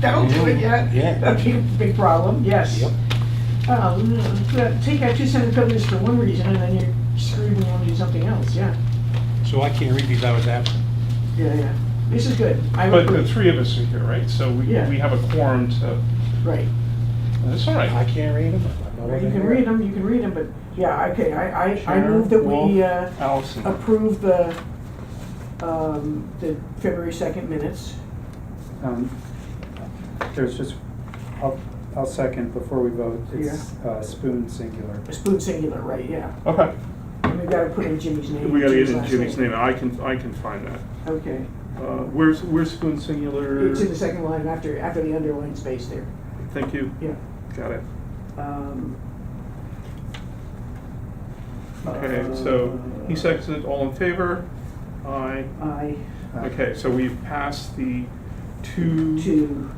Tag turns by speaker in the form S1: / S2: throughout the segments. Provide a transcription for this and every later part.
S1: don't do it yet.
S2: Yeah.
S1: That'd be a big problem, yes.
S2: Yep.
S1: Um, but Take out two separate buildings for one reason, and then you're screwed and you want to do something else, yeah.
S2: So I can't read these, I was absent.
S1: Yeah, yeah. This is good. I
S3: But the
S1: approve.
S3: three of us are here, right? So we,
S1: Yeah.
S3: we have a quorum to,
S1: Right.
S3: that's all right.
S2: I can't read them. I
S1: You
S2: wasn't
S1: can
S2: here.
S1: read them, you can read them, but, yeah, okay, I, I, I
S3: Sharon,
S1: move that we,
S3: Wolf,
S1: uh,
S3: Allison,
S1: approve the, um, the February second minutes.
S4: Um, There's just, I'll, I'll second before we vote. It's uh, spoon singular.
S1: Spoon singular, right, yeah.
S3: okay.
S1: And we gotta put in Jimmy's name.
S3: We gotta get in
S1: last
S3: Jimmy's name, I can, I can find that.
S1: Okay.
S3: Uh, Where's, where's Spoon Singular?
S1: It's in the second line after, after the underlying space there,
S3: Thank you,
S1: yeah.
S3: got it.
S1: Um, uh,
S3: Okay, so he seconds it, all in favor? Aye.
S1: I,
S4: Uh,
S3: Okay, so we've passed the two,
S1: two,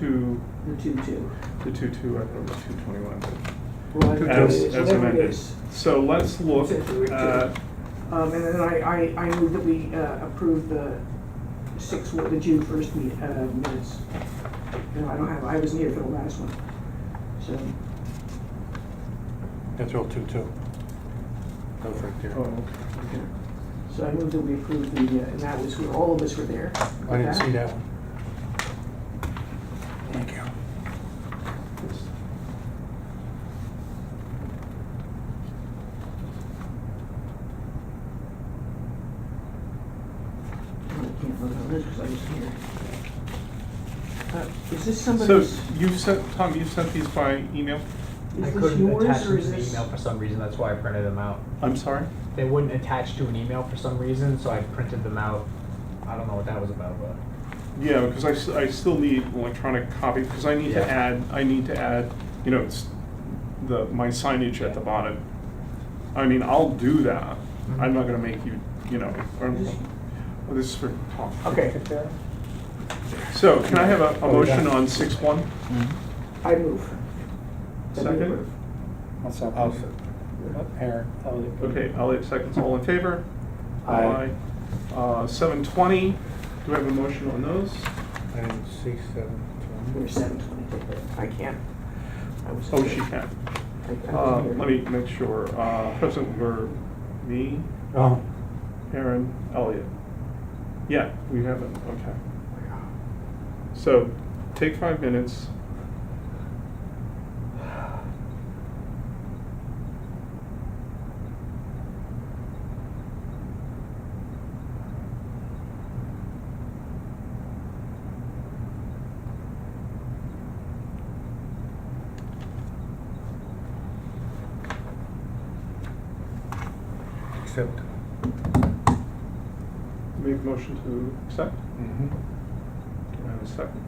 S3: two,
S1: the two, two.
S3: the two, two, I thought it was two twenty-one.
S1: Well, I-
S3: but-
S1: whatever it
S3: As,
S1: is,
S3: as
S1: whatever it
S3: amended. uh,
S1: is.
S3: So let's look at,
S1: Um, and then I, I, I move that we uh, approve the six, the June first meet, uh, minutes. No, I don't have, I wasn't here for the last one, so,
S2: That's all two, two. That was right there.
S3: oh,
S1: so I move that we approve the, uh, and that was where all of us were there.
S2: I didn't see that one. Thank you.
S1: I can't vote on this because I wasn't here. Uh, Is this
S3: okay. So
S1: somebody's,
S3: you've sent, Tom, you've sent these by email?
S5: I
S1: is this
S5: couldn't attach
S1: yours
S5: them
S1: or
S5: to
S1: is
S5: the
S1: this?
S5: email for some reason, that's why I printed them out.
S3: I'm sorry?
S5: They wouldn't attach to an email for some reason, so I printed them out. I don't know what that was about, but
S3: Yeah, because I, s- I still need electronic copy, because I need to
S5: Yeah.
S3: add, I need to add, you know, it's the, my signage at the bottom. I mean, I'll do that, I'm not gonna make you, you know, or-
S1: This-
S3: oh, this is for Tom.
S5: okay.
S3: So, can I have a, a
S2: Oh,
S3: motion
S2: yeah.
S3: on six one?
S1: I move. That we
S3: Second.
S1: approve.
S4: I'll second.
S2: I'll second. Aaron, that was it.
S3: Okay, Elliot seconds, all in favor?
S4: Aye.
S3: Uh, seven twenty, do we have a motion on those?
S2: I didn't see seven,
S1: We're
S2: twenty.
S1: seven twenty, I can't. I was-
S3: Oh, she can.
S1: I- I wasn't
S3: Uh,
S1: here.
S3: let me make sure, uh, President were me,
S2: Oh,
S3: Aaron, Elliot. Yeah, we haven't, okay. So, take five minutes.
S2: accept.
S3: Make motion to accept.
S4: Mm-hmm.
S2: Mhm.
S3: Do I have a second?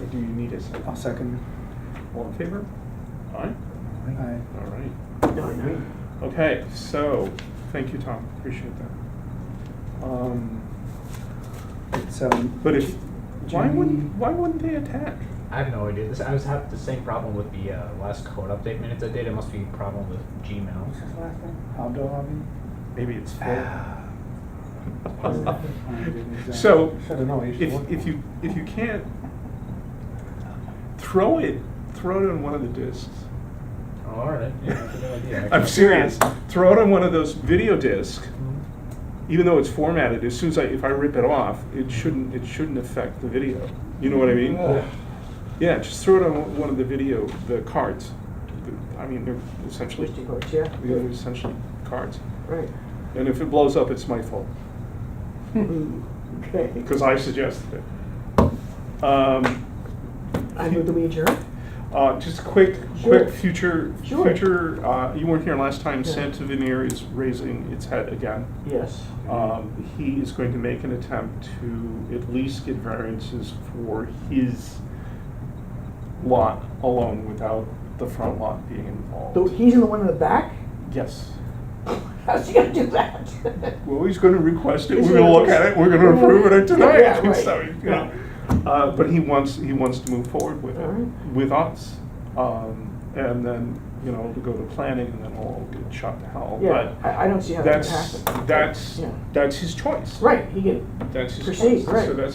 S3: Or do you need a second?
S4: I'll second.
S3: All in favor? Aye?
S4: Aye.
S3: All right.
S1: No, no.
S3: Okay, so, thank you, Tom, appreciate that. Um,
S4: It's, um,
S3: But if, why
S4: Jimmy-
S3: wouldn't, why wouldn't they attack?
S5: I have no idea. This I was having the same problem with the uh, last code update minutes I did. It must be a problem with Gmail. Ah,
S4: Abdul
S3: Maybe it's
S4: Abi?
S3: So,
S2: Should've known, you should
S3: if,
S2: look.
S3: if you, if you can't, throw it, throw it on one of the discs.
S5: Oh, all right. Yeah, that's a good idea.
S3: I'm serious, throw it on one of those video discs,
S5: Mhm.
S3: even though it's formatted, as soon as I, if I rip it off, it shouldn't, it shouldn't affect the video. You know what I mean?
S2: Yeah.
S3: Yeah, just throw it on one of the video, the cards. I mean, they're essentially,
S1: Mr. Coach, yeah?
S3: they're essentially cards.
S1: Right.
S3: And if it blows up, it's my fault,
S1: Okay.
S3: Hmm. because I suggested it. Um,
S1: I move that we adjourn?
S3: uh, just quick,
S1: Sure.
S3: quick future,
S1: Sure.
S3: future, uh, you weren't here last time,
S1: Yeah.
S3: Santa Veneer is raising its head again.
S1: Yes. Uh,
S3: Um, he is going to make an attempt to at least get variances for his lot alone without the front lot being involved.
S1: So he's in the one in the back?
S3: Yes.
S1: How's he gonna do that?
S3: Well, he's gonna request it,
S1: Is
S3: we're gonna
S1: he-
S3: look at it, we're gonna approve it
S1: Yeah,
S3: tonight,
S1: right.
S3: so, you know. Uh, but he wants, he wants to move forward with it,
S1: Alright.
S3: with us. Um, and then, you know, to go to planning and then all get shot to hell,
S1: Yeah,
S3: but
S1: I, I don't see how that
S3: that's,
S1: could happen.
S3: that's,
S1: Yeah.
S3: that's his choice.
S1: Right, he can
S3: That's his
S1: Proceed,
S3: choice, so
S1: right.
S3: that's